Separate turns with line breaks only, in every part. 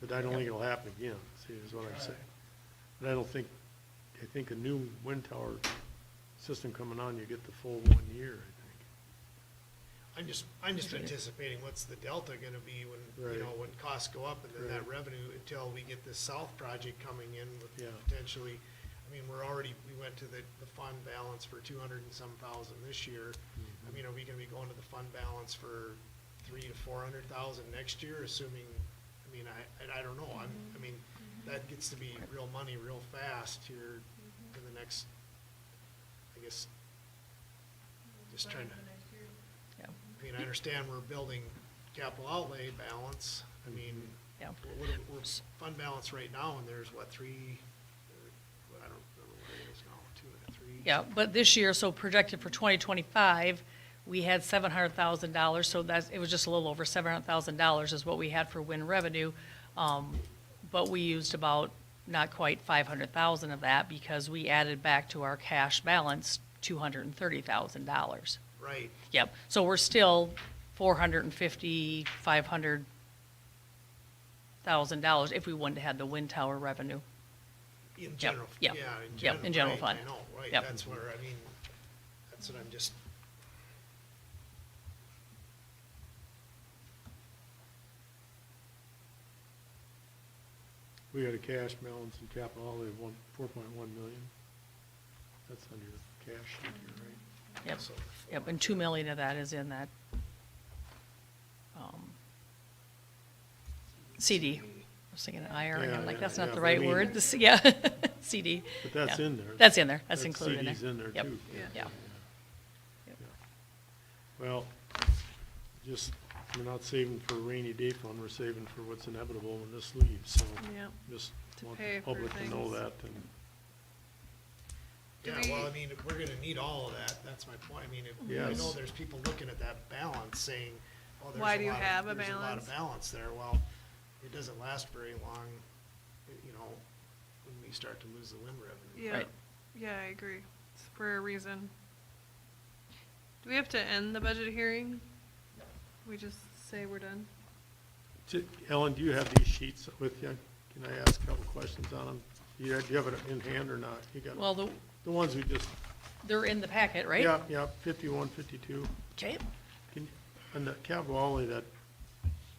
but I don't think it'll happen again, see, is what I'm saying. And I don't think, I think a new wind tower system coming on, you get the full one year, I
I'm just, I'm just anticipating what's the delta gonna be when,
Right.
you know, when costs go up and then that
Right.
revenue until we get this south project coming in
Yeah.
with potentially, I mean, we're already, we went to the, the fund balance for two hundred and some thousand this year. I mean, are we gonna be going to the fund balance for three to four hundred thousand next year, assuming, I mean, I, and I don't know, I'm, I mean, that gets to be real money real fast here in the next, I guess, just trying to.
Yeah,
I mean, I understand we're building capital outlay balance, I mean,
yeah.
we're- we're, we're fund balance right now, and there's what, three, uh, I don't remember what it is now, two, and three?
Yeah, but this year, so projected for 2025, we had $700,000, so that's, it was just a little over $700,000 is what we had for wind revenue. Um, But we used about not quite 500,000 of that because we added back to our cash balance $230,000.
Right,
Yep, so we're still 450, 500,000 dollars if we wouldn't have had the wind tower revenue.
in general, yeah,
yeah,
in
yep,
general.
in general
right, I
fund.
know, right,
Yep.
that's where, I mean, that's what I'm just,
think. We had a cash balance in capital outlay of one, four point one million. That's on your cash sheet here, right?
Yep,
so.
yep, and 2 million of that is in that um, CD. I was thinking IR, and I'm
Yeah,
like,
yeah,
that's not
yeah, but
the
I
right
mean-
word, The C- yeah, CD.
But that's
yeah.
in there.
That's in there, that's
That
included in there.
CD's in there
Yep,
too.
Yeah,
Yeah.
Yep.
Well, just, we're not saving for a rainy day fund, we're saving for what's inevitable when this leaves, so.
Yeah.
Just
To
want
pay
the
for
public to know
things.
that, and,
Do
Yeah, well,
we-
I mean, we're gonna need all of that, that's my point, I mean, if, I know
Yes.
there's people looking at that balance saying, oh, there's a
Why do you
lot of-
have a
There's a lot
balance?
of balance there, well, it doesn't last very long, you know, when we start to lose the wind revenue.
Yeah,
Right.
yeah, I agree. It's for a reason. Do we have to end the budget hearing? We just say we're done?
Ti- Ellen, do you have these sheets with you? Can I ask a couple questions on them? Do you, do you have it in hand or not? You got,
well, the-
the ones we just,
they're in the packet, right?
yeah, yeah, fifty-one, fifty-two.
Okay,
Can, and the capital outlay, that,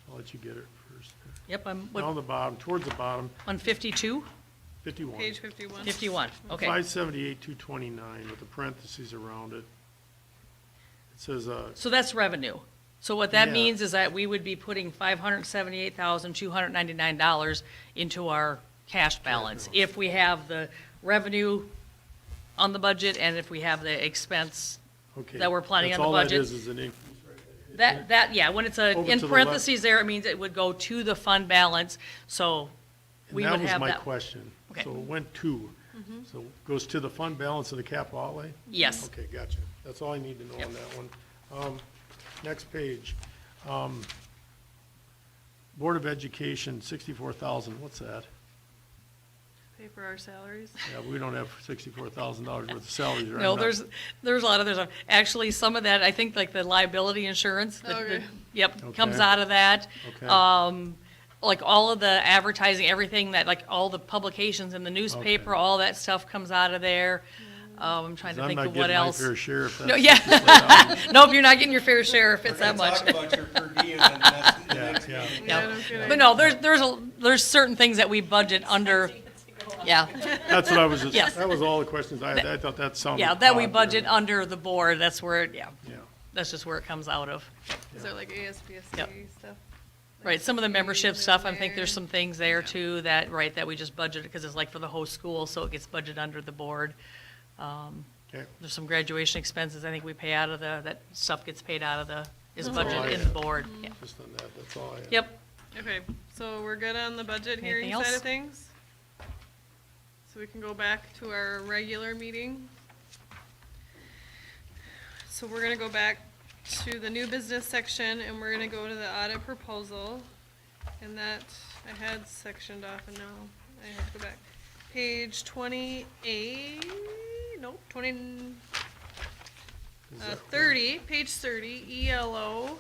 I'll let you get it first.
yep, I'm,
Down
what,
the bottom, towards the bottom,
on 52?
fifty-one.
Page fifty-one?
51, okay.
Five seventy-eight, two twenty-nine, with the parentheses around it. It says, uh,
So that's revenue. So what that
Yeah.
means is that we would be putting five hundred seventy-eight thousand, two hundred ninety-nine dollars into our cash balance if we have the revenue on the budget and if we have the expense.
okay.
That we're planning
that's
on the
all that
budget.
is, is an increase.
That, that, yeah, when it's a,
Over
in
to the left.
parentheses there, it means it would go to the fund balance, so we would
And that was
have
my
that.
question.
Okay. Mm-hmm.
So it went to, so it goes to the fund balance of the capital outlay?
Yes.
Okay, gotcha. That's all I need to know on
Yep.
that one. Um, next page. Um, Board of Education, sixty-four thousand, what's that?
Pay for our salaries?
Yeah, we don't have sixty-four thousand dollars worth of salaries right now.
No, there's, there's a lot of, there's, actually, some of that, I think, like the liability insurance, the- the-
Okay.
yep, comes
Okay.
out of that.
Okay.
Um, like all of the advertising, everything that, like all the publications in the newspaper,
Okay.
all that stuff comes out of there. Um, I'm trying to think of what else.
I'm not getting my fair share if that's.
No, yeah. Nope, you're not getting your fair share if it's that much.
We're gonna talk about your per diem and that's the
Yeah,
next
yeah.
meeting.
Yeah, no kidding.
But no, there's, there's, a there's certain things that we budget under, yeah.
That's what I was, just-
Yes.
that was all the questions I had. I thought that sounded.
Yeah, that we
odd.
budget under the board, that's where, it yeah,
Yeah,
that's just where it comes out of.
Is there like ASPSD stuff?
Right, some of the
Like
membership
fees
stuff, I
in
think there's
there?
some things there too that, right, that we just budgeted, because it's like for the whole school, so it gets budgeted under the board. Um,
okay.
There's some graduation expenses, I think we pay out of the, that stuff gets paid out of the, is
all I
budgeted in the
have.
board, yeah.
Just on that, that's all I had.
Yep,
Okay, so we're good on the budget
Anything
hearing side
else?
of things? So we can go back to our regular meeting? So we're gonna go back to the new business section and we're gonna go to the audit proposal. And that, I had sectioned off and now I have to go back. Page twenty-eight, nope, twenty,
Is
uh,
that-
E thirty, page thirty, ELO.